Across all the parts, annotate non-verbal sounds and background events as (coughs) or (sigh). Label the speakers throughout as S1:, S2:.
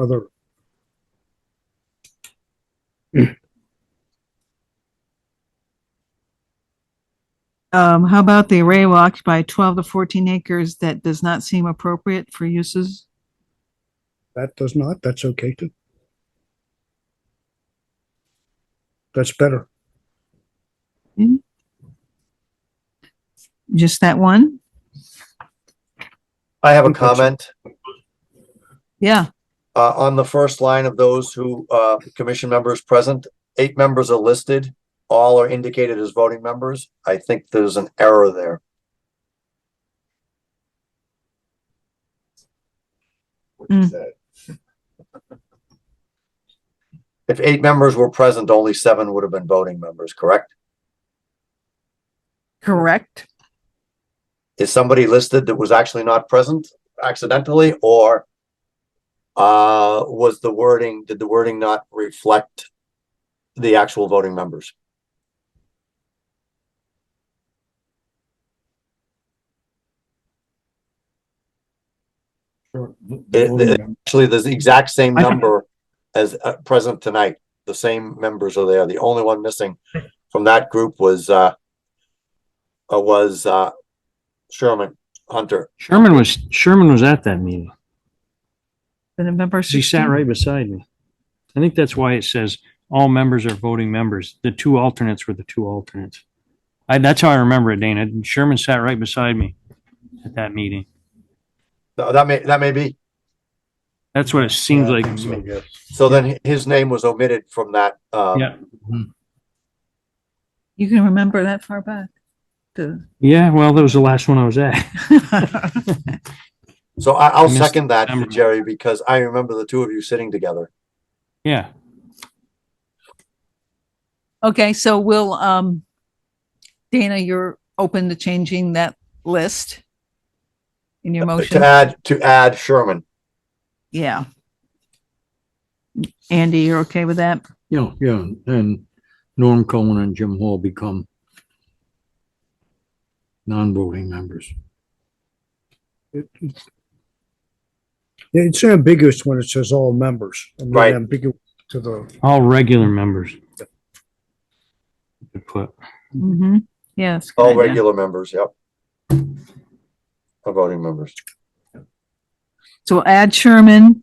S1: other.
S2: Um, how about the array will occupy twelve to fourteen acres that does not seem appropriate for uses?
S1: That does not, that's okay too. That's better.
S2: Just that one?
S3: I have a
S1: Good question.
S3: comment
S2: Yeah,
S3: uh, on the first line of those who, uh, commission members present. Eight members are listed. All are indicated as voting members. I think there's an error there.
S2: Mm.
S3: If eight members were present, only seven would have been voting members, correct?
S2: correct.
S3: Is somebody listed that was actually not present accidentally or uh, was the wording, did the wording not reflect the actual voting members? The- the- actually there's the exact same
S1: I-
S3: number as uh, present tonight. The same members are there. The only one missing from that group was uh uh, was uh Sherman Hunter.
S4: Sherman was, Sherman was at that meeting.
S2: The November
S4: 'cause He sat
S2: 16.
S4: right beside me. I think that's why it says all members are voting members. The two alternates were the two alternates. I, that's how I remember it, Dana. Sherman sat right beside me at that meeting.
S3: No, that may that may be.
S4: That's what it seems like. to me.
S3: So then his name was omitted from that uh
S4: Yeah.
S2: You can remember that far back.
S3: (laughs)
S2: The-
S4: Yeah, well, that was the last one I was at. (laughs)
S3: so I, I'll
S4: I missed
S3: second that
S4: number.
S3: Jerry because I remember the two of you sitting together.
S4: Yeah.
S2: Okay, so we'll, um, Dana, you're open to changing that list in your
S3: To
S2: motion?
S3: add to add Sherman.
S2: Yeah. Andy, you're okay with that?
S5: Yeah, yeah, and Norm Cohen and Jim Hall become non-voting members.
S1: It- it- It's ambiguous when it says all members. and not
S3: Right.
S1: Ambiguous to the,
S4: All regular members. Good put.
S2: Mm-hmm. Yes.
S3: All regular members, yep. All voting members.
S2: So we'll add Sherman.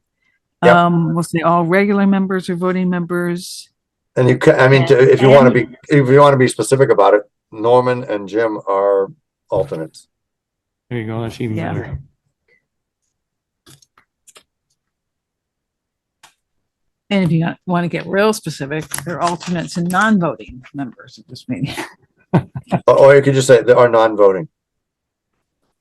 S3: Yep.
S2: Um, we'll say all regular members or voting members.
S3: And you can, I mean, to- if you want to be, if you want to be specific about it, Norman and Jim are alternates.
S4: There you go. That's even
S2: Yeah.
S4: better.
S2: And if you want to get real specific, they're alternates and non-voting members of this
S3: (laughs)
S2: meeting.
S3: Or- Or you could just say they are non-voting.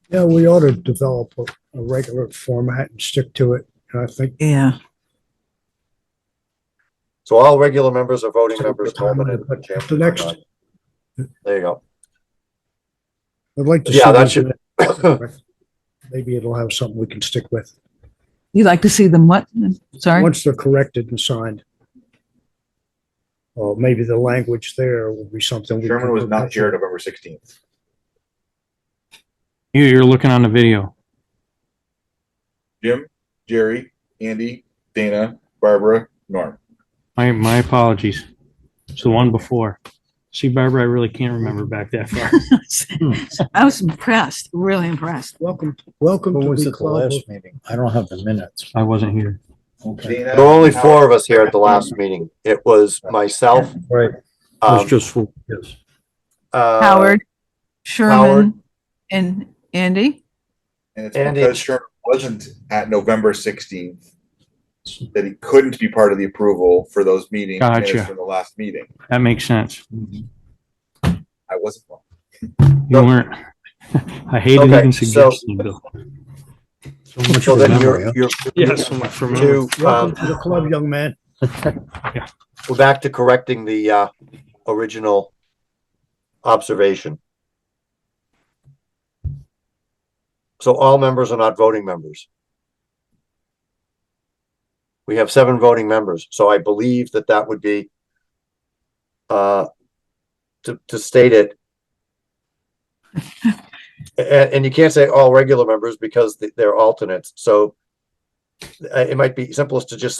S1: yeah, we ought to develop a, a regular format and stick to it. And I think
S2: Yeah.
S3: So all regular members are voting
S1: So
S3: members.
S1: the time
S3: Norman
S1: to
S3: and
S1: put
S3: Jim
S1: the
S3: are
S1: next-
S3: not. There you go.
S1: I'd like to.
S3: Yeah,
S1: see
S3: that
S1: these
S3: should- (laughs)
S1: (coughs) in a- Maybe it'll have something we can stick with,
S2: You'd like to see them what? (laughs) Sorry.
S1: once they're corrected and signed. Or maybe the language there will be something. we
S6: Sherman
S1: can
S6: was
S1: go back
S6: not
S1: to.
S6: here November sixteenth.
S4: You, you're looking on the video.
S6: Jim, Jerry, Andy, Dana, Barbara, Norm.
S4: My, my apologies. It's the one before. See, Barbara, I really can't remember back that far.
S3: Hmm.
S2: I was impressed, really impressed.
S1: Welcome, welcome
S5: Who
S1: to
S5: was
S1: the
S5: at the
S1: club.
S5: last meeting? I don't have the minutes.
S4: I wasn't here.
S5: Okay.
S6: Dana,
S3: There were only four of us here at the last meeting. It was myself,
S5: Right.
S3: um,
S5: It's just for, yes.
S3: uh,
S2: Howard,
S3: Howard.
S2: Sherman, and Andy?
S6: And it's
S3: Andy.
S6: because Sherman wasn't at November sixteenth that he couldn't be part of the approval for those meetings minutes
S4: Gotcha.
S6: from the last meeting.
S4: That makes sense.
S6: I wasn't. one.
S4: You weren't. (laughs) I hated
S3: Okay,
S4: even
S3: so-
S4: suggesting, Bill.
S5: So much
S3: So
S5: for
S3: then
S5: memory,
S3: you're,
S5: huh?
S3: you're
S4: Yes, so much for
S3: to, um,
S1: Welcome to the club, young man.
S3: we're back to correcting the, uh, original observation. So all members are not voting members. We have seven voting members, so I believe that that would be, uh, to, to state it. And, and you can't say all regular members because th- they're alternates, so uh, it might be simplest to just